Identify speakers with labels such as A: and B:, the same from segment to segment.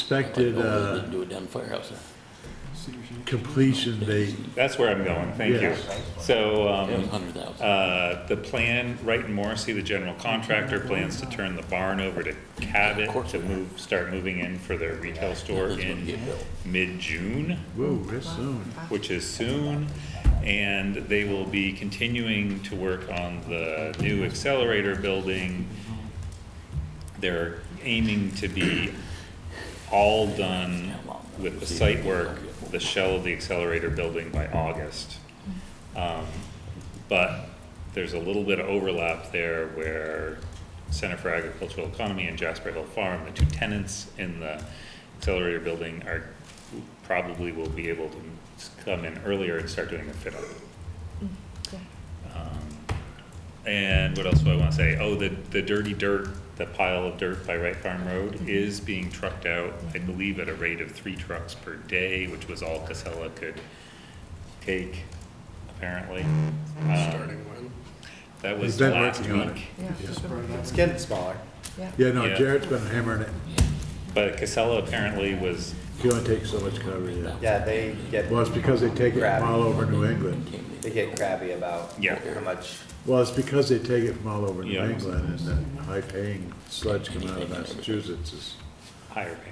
A: Expected uh,
B: Didn't do it down the firehouse.
A: completion date,
C: That's where I'm going, thank you.
A: Yes.
C: So,
B: It was
C: um,
B: hundred thousand.
C: uh, the plan, Wright and Morrissey, the general contractor, plans to turn the barn over to Cabot to move, start moving in for their retail store
B: That's gonna
C: in
B: get built.
C: mid-June,
A: whoa, that's soon.
C: which is soon. And they will be continuing to work on the new accelerator building. They're aiming to be all done with the site work, the shell of the accelerator building by August. Um, But there's a little bit of overlap there where Center for Agricultural Economy and Jasper Hill Farm, the two tenants in the accelerator building are, probably will be able to come in earlier and start doing the fit up. And what else do I want to say? Oh, the, the dirty dirt, the pile of dirt by Wright Farm
A: Mm-hmm.
C: Road is being trucked out, I believe at a rate of three trucks per day, which was all Casella could take, apparently. Starting when? That
A: He's
C: was
A: been
C: last
A: working on it.
C: week,
D: Yeah, it's been working.
E: It's getting smaller.
D: yeah.
A: Yeah, no,
C: Yeah.
A: Jared's been hammering it.
C: but Casella apparently was,
A: You only take so much cover, yeah.
E: Yeah, they get,
A: Well, it's because they take it from all over New England.
E: they get crabby about
C: Yeah.
E: how much,
A: Well, it's because they take it from all over New
C: Yeah.
A: England and that high-paying sludge coming out of Massachusetts is
C: higher pay.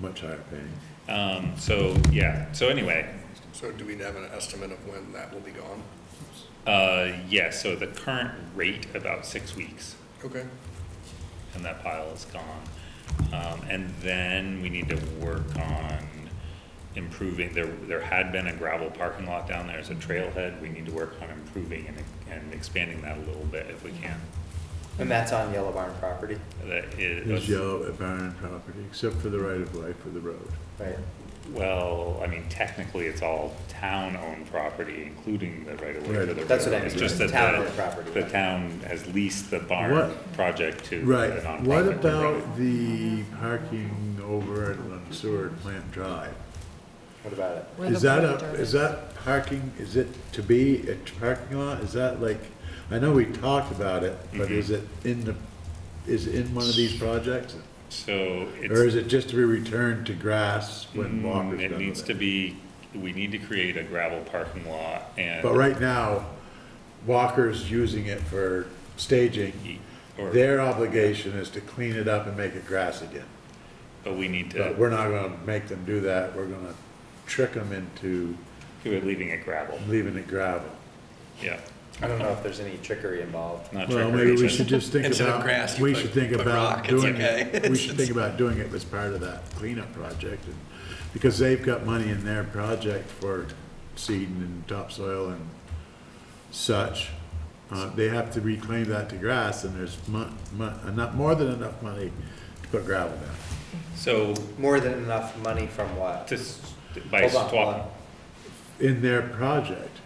A: much higher paying.
C: Um, so, yeah, so anyway,
F: So do we have an estimate of when that will be gone?
C: uh, yeah, so the current rate, about six weeks.
F: Okay.
C: and that pile is gone. Um, and then we need to work on improving, there, there had been a gravel parking lot down there as a trailhead, we need to work on improving and, and expanding that a little bit if we can.
E: and that's on Yellow Barn property,
C: That
A: It's
C: is,
A: yellow at Barron property, except for the right-of-way for the road.
E: right?
C: well, I mean, technically, it's all town-owned property, including the right-of-way for the
A: Right.
C: road.
E: That's what I mean,
C: It's just that
E: town-owned
C: the-
E: property.
C: The town has leased the barn
A: What-
C: project to a
A: Right,
C: nonprofit.
A: what
C: to run it.
A: about the parking over at on Seward Plant Drive?
E: What about it?
D: Where the
A: Is that
D: plate
A: a,
D: are.
A: is that parking, is it to be a parking lot? Is that like, I know we talked about it,
C: Mm-hmm.
A: but is it in the, is it in one of these projects?
C: So it's.
A: Or is it just to be returned to grass when
C: Mm,
A: Walker's done
C: It needs
A: with
C: to
A: it?
C: be, we need to create a gravel parking lot and.
A: But right now, Walker's using it for staging.
C: or-
A: Their obligation is to clean it up and make it grass again.
C: But we need
A: But
C: to,
A: we're not gonna make them do that. We're gonna trick them into
C: we're leaving it gravel,
A: leaving it gravel.
C: yeah.
E: I don't know if there's any trickery involved.
C: Not
A: Well,
C: trick or
A: maybe we
C: treating.
A: should just think
F: Instead of
A: about,
F: grass, you
A: we
F: put-
A: should think
F: put
A: about
F: rock, it's
A: doing
F: okay.
A: it, we should think about doing it as part of that cleanup project. and- Because they've got money in their project for seeding and topsoil and such. Uh, they have to reclaim that to grass and there's mu- mu- not more than enough money to put gravel down.
C: So,
E: More than enough money from what?
C: just by
E: Hold on, hold
C: swapping,
E: on.
A: In their project,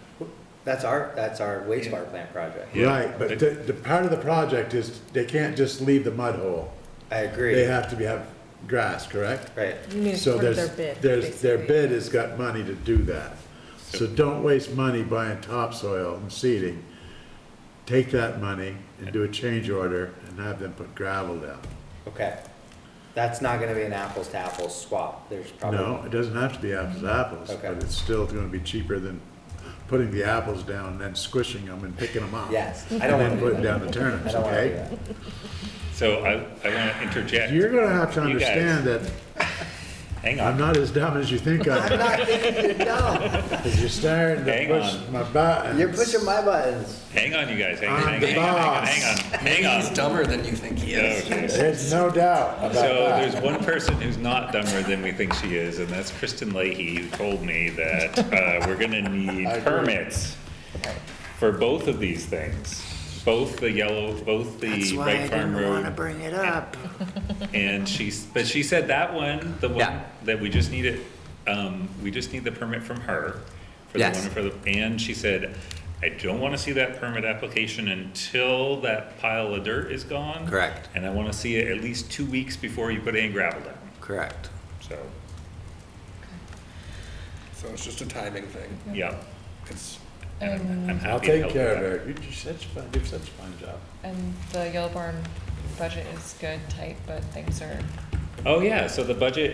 E: That's our, that's our wastewater plant project.
C: Yeah.
A: right, but the, the part of the project is, they can't just leave the mud hole.
E: I agree.
A: They have to be, have grass, correct?
E: Right,
D: You mean it's
A: So
D: part of
A: there's,
D: their bid.
A: there's, their
D: basically.
A: bid has got money to do that. So don't waste money buying topsoil and seeding. Take that money and do a change order and have them put gravel down.
E: okay. That's not gonna be an apples to apples swap, there's probably.
A: No, it doesn't have to be apples to apples,
E: Okay.
A: but it's still gonna be cheaper than putting the apples down and then squishing them and picking them up.
E: Yes, I
A: And
E: don't
A: then
E: wanna do
A: putting down
E: that.
A: the
E: I
A: turnips,
E: don't wanna do
A: okay?
E: that.
C: so I, I wanna interject.
A: You're gonna have to
C: You guys,
A: understand that
C: Hang
A: I'm
C: on,
A: not as dumb as you think I am,
E: Not thinking you're dumb.
A: because you're starting to
C: Hang
A: push
C: on.
A: my buttons.
E: You're pushing my buttons.
C: hang on, you guys, hang,
A: I'm
C: hang,
A: the
C: hang on,
A: boss.
C: hang on, hang
F: Maybe
C: on.
F: he's dumber than you think he is.
C: Okay.
A: There's no doubt about
C: So
A: that.
C: there's one person who's not dumber than we think she is, and that's Kristen Leahy, who told me that uh, we're gonna need
A: agree.
C: permits for both of these things, both the yellow, both the Wright Farm Road.
F: bring it up.
C: And she's, but she said that one, the one,
F: Yeah.
C: that we just need it, um, we just need the permit from her. for the
F: Yes.
C: one For the, and she said, I don't wanna see that permit application until that pile of dirt is gone.
F: Correct.
C: And I wanna see it at least two weeks before you put any gravel down.
F: Correct.
C: So,
F: So it's just a timing thing.
C: yeah,
F: It's,
C: I'm
G: And,
C: happy
A: I'll
C: to
A: take
C: help
A: care
C: with
A: of
C: that.
A: it. You do such a fine, do such a fine job.
G: and the Yellow Barn budget is good, tight, but things are
C: Oh, yeah, so the budget